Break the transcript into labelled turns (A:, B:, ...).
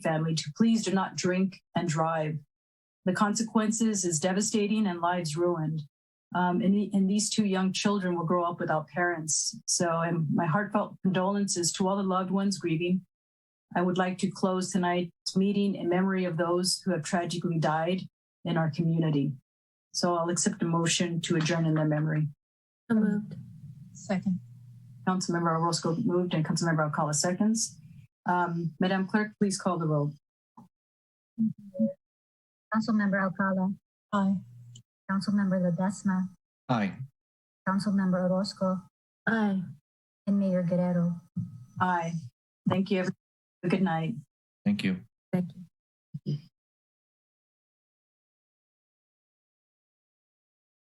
A: family to please do not drink and drive. The consequences is devastating and lives ruined. Um, and, the, and these two young children will grow up without parents. So, and my heartfelt condolences to all the loved ones grieving. I would like to close tonight's meeting in memory of those who have tragically died in our community. So I'll accept a motion to adjourn in their memory.
B: So
C: Um,
B: moved.
C: Second.
A: Councilmember Orozco moved and Councilmember Alcala seconds. Um, Madam Clerk, please call the roll.
C: Councilmember Alcala,
B: Aye.
C: Councilmember Ledesma,
D: Aye.
C: Councilmember Orozco,
B: Aye.
C: and Mayor Guerrero.
A: Aye. Thank you. everyone. Good night.
D: Thank you.
B: Thank you.